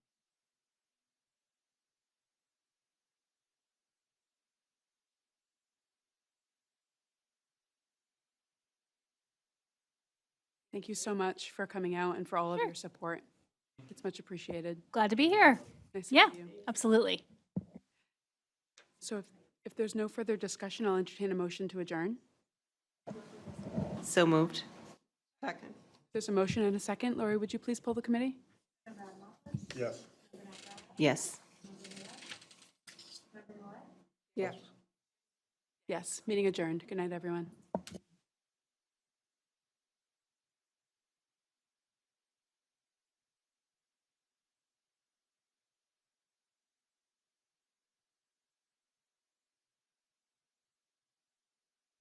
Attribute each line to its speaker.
Speaker 1: Thank you so much for coming out and for all of
Speaker 2: Sure.
Speaker 1: your support. It's much appreciated.
Speaker 2: Glad to be here.
Speaker 1: Nice to
Speaker 2: Yeah.
Speaker 1: meet you.
Speaker 2: Absolutely.
Speaker 1: So if, if there's no further discussion, I'll entertain a motion to adjourn.
Speaker 3: So moved. Second.
Speaker 1: There's a motion and a second. Lori, would you please pull the committee?
Speaker 4: Yes.
Speaker 3: Yes.
Speaker 4: Yes.
Speaker 1: Yes, meeting adjourned. Good night, everyone.